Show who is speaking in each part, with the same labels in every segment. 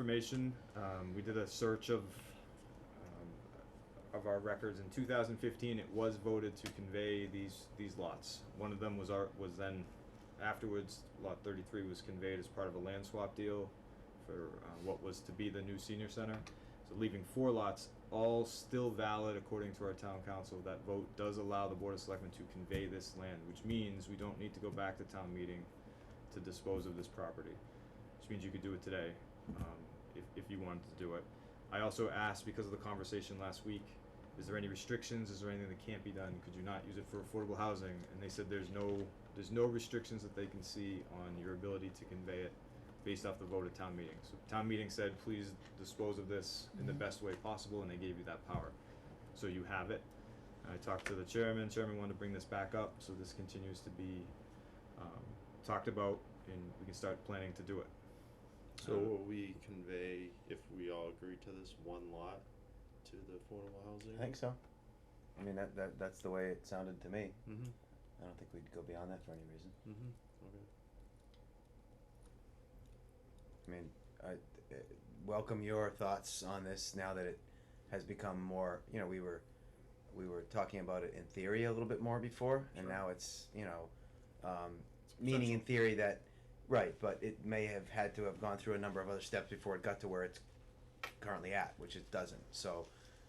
Speaker 1: information. Um, we did a search of, um, of our records in two thousand fifteen, it was voted to convey these, these lots. One of them was our, was then afterwards, lot thirty-three was conveyed as part of a land swap deal for, uh, what was to be the new senior center. So leaving four lots, all still valid according to our town council, that vote does allow the board of selectmen to convey this land, which means we don't need to go back to town meeting to dispose of this property which means you could do it today, um, if, if you wanted to do it. I also asked, because of the conversation last week, is there any restrictions, is there anything that can't be done, could you not use it for affordable housing? And they said there's no, there's no restrictions that they can see on your ability to convey it based off the vote of town meeting. So town meeting said, please dispose of this in the best way possible, and they gave you that power. So you have it. I talked to the chairman, chairman wanted to bring this back up, so this continues to be, um, talked about, and we can start planning to do it.
Speaker 2: So
Speaker 1: Uh,
Speaker 3: Um,
Speaker 2: will we convey, if we all agree to this, one lot to the affordable housing?
Speaker 3: I think so. I mean, that, that that's the way it sounded to me.
Speaker 2: Mm-hmm,
Speaker 3: I don't think we'd go beyond that for any reason.
Speaker 2: mm-hmm, okay.
Speaker 3: I mean, I uh, welcome your thoughts on this now that it has become more. You know, we were we were talking about it in theory a little bit more before, and
Speaker 2: Sure.
Speaker 3: now it's you know, um, meaning in theory that right, but it may have had to have gone through a number of other steps before it got to where it's currently at, which it doesn't. So,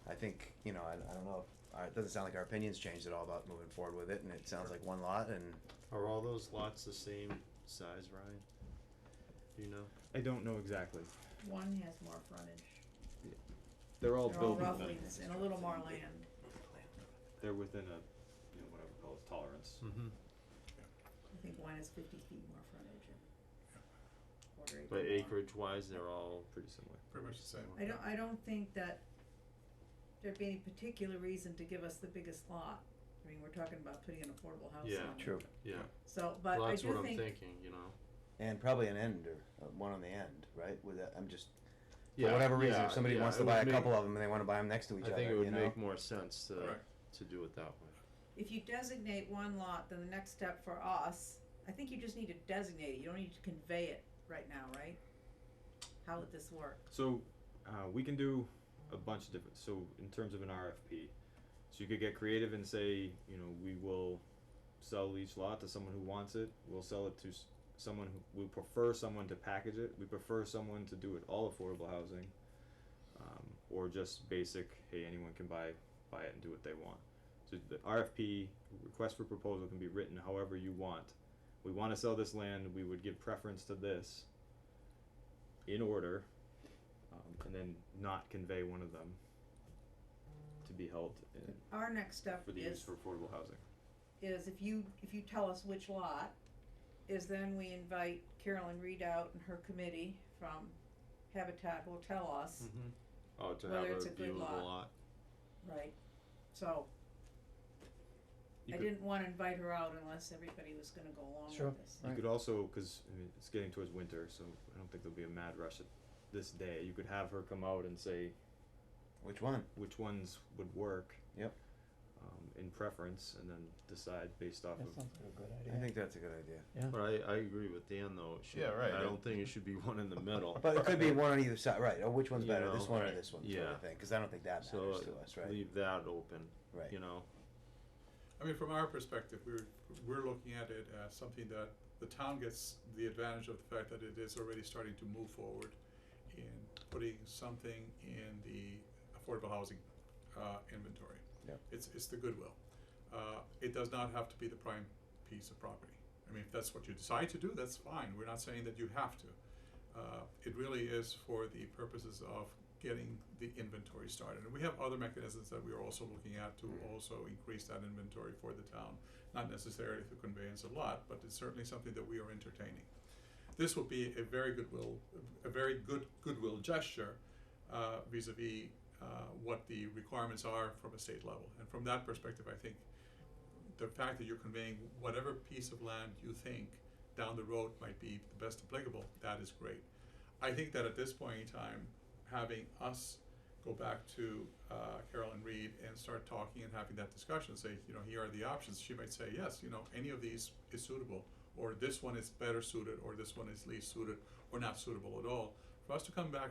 Speaker 3: I think you know, I, I don't know. If, uh, it doesn't sound like our opinions changed at all about moving forward with it, and it sounds like one lot and.
Speaker 2: Are all those lots the same size, Ryan? Do you know?
Speaker 1: I don't know exactly.
Speaker 4: One has more frontage.
Speaker 1: They're all
Speaker 4: They're all
Speaker 1: building,
Speaker 4: roughly,
Speaker 3: buildings.
Speaker 4: and a little more land.
Speaker 1: they're within a, you know, whatever we call it, tolerance.
Speaker 2: Mm-hmm.
Speaker 4: I think one has fifty feet more frontage and quarter acre.
Speaker 2: But
Speaker 4: more.
Speaker 2: acreage wise, they're all,
Speaker 1: Pretty similar.
Speaker 5: Pretty much the same.
Speaker 4: I don't, I don't think that there'd be any particular reason to give us the biggest lot. I mean, we're talking about putting an affordable house on it.
Speaker 2: Yeah.
Speaker 3: True.
Speaker 2: yeah,
Speaker 4: So, but
Speaker 2: well,
Speaker 4: I
Speaker 2: that's what
Speaker 4: do
Speaker 2: I'm
Speaker 4: think,
Speaker 2: thinking, you know?
Speaker 3: And probably an end or uh, one on the end, right? With that, I'm just
Speaker 2: Yeah,
Speaker 3: for whatever reason,
Speaker 2: yeah,
Speaker 3: if somebody
Speaker 2: yeah,
Speaker 3: wants
Speaker 2: it
Speaker 3: to
Speaker 2: would
Speaker 3: buy a
Speaker 2: make-
Speaker 3: couple of them and they want to buy them next to each
Speaker 2: I
Speaker 3: other,
Speaker 2: think it would
Speaker 3: you know?
Speaker 2: make more sense to,
Speaker 5: Correct.
Speaker 2: to do it that way.
Speaker 4: if you designate one lot, then the next step for us, I think you just need to designate it, you don't need to convey it right now, right? How would this work?
Speaker 1: So, uh, we can do a bunch of different, so in terms of an RFP, so you could get creative and say, you know, we will sell each lot to someone who wants it, we'll sell it to s- someone who, we prefer someone to package it, we prefer someone to do it all affordable housing, um, or just basic, hey, anyone can buy, buy it and do what they want. So the RFP, request for proposal can be written however you want. We wanna sell this land, we would give preference to this in order, um, and then not convey one of them to be held in,
Speaker 4: Our next step
Speaker 1: for the use
Speaker 4: is
Speaker 1: for affordable housing.
Speaker 4: is if you, if you tell us which lot, is then we invite Carolyn Readout and her committee from Habitat will tell us,
Speaker 2: Mm-hmm. Oh, to have
Speaker 4: Whether it's
Speaker 2: a
Speaker 4: a good
Speaker 2: view of the
Speaker 4: lot.
Speaker 2: lot,
Speaker 4: right? So,
Speaker 1: Hmm. You
Speaker 4: I
Speaker 1: could,
Speaker 4: didn't wanna invite her out unless everybody was gonna go along
Speaker 3: Sure.
Speaker 4: with this.
Speaker 1: you could also, cause I mean, it's getting towards winter, so I don't think there'll be a mad rush at this day, you could have her come out and say
Speaker 3: Which one?
Speaker 1: which ones would work.
Speaker 3: Yep.
Speaker 1: Um, in preference, and then decide based off of,
Speaker 6: like a good
Speaker 3: I think that's a good idea.
Speaker 2: but I, I agree with Dan though, it should,
Speaker 5: Yeah, right,
Speaker 2: I
Speaker 5: I-
Speaker 2: don't think it should be one in the middle.
Speaker 3: But it could be one on either side, right? Or which one's
Speaker 2: You
Speaker 3: better,
Speaker 2: know,
Speaker 3: this one or
Speaker 5: right.
Speaker 3: this one, sort
Speaker 2: Yeah.
Speaker 3: of thing. Because I don't think that
Speaker 2: So, uh,
Speaker 3: matters to us, right?
Speaker 2: Leave that open,
Speaker 3: Right.
Speaker 2: you know?
Speaker 5: I mean, from our perspective, we're, we're looking at it as something that the town gets the advantage of the fact that it is already starting to move forward in putting something in the affordable housing, uh, inventory.
Speaker 3: Yep.
Speaker 5: It's, it's the goodwill. Uh, it does not have to be the prime piece of property. I mean, if that's what you decide to do, that's fine. We're not saying that you have to. Uh, it really is for the purposes of getting the inventory started. And we have other mechanisms that we are also looking at to also increase that inventory for the town, not necessarily through conveyance a lot, but it's certainly something that we are entertaining. This would be a very goodwill, a very good goodwill gesture uh, vis-a-vis uh, what the requirements are from a state level. And from that perspective, I think the fact that you're conveying whatever piece of land you think down the road might be the best applicable, that is great. I think that at this point in time, having us go back to uh, Carolyn Reed and start talking and having that discussion, say, you know, here are the options. She might say, yes, you know, any of these is suitable, or this one is better suited, or this one is least suited, or not suitable at all. For us to come back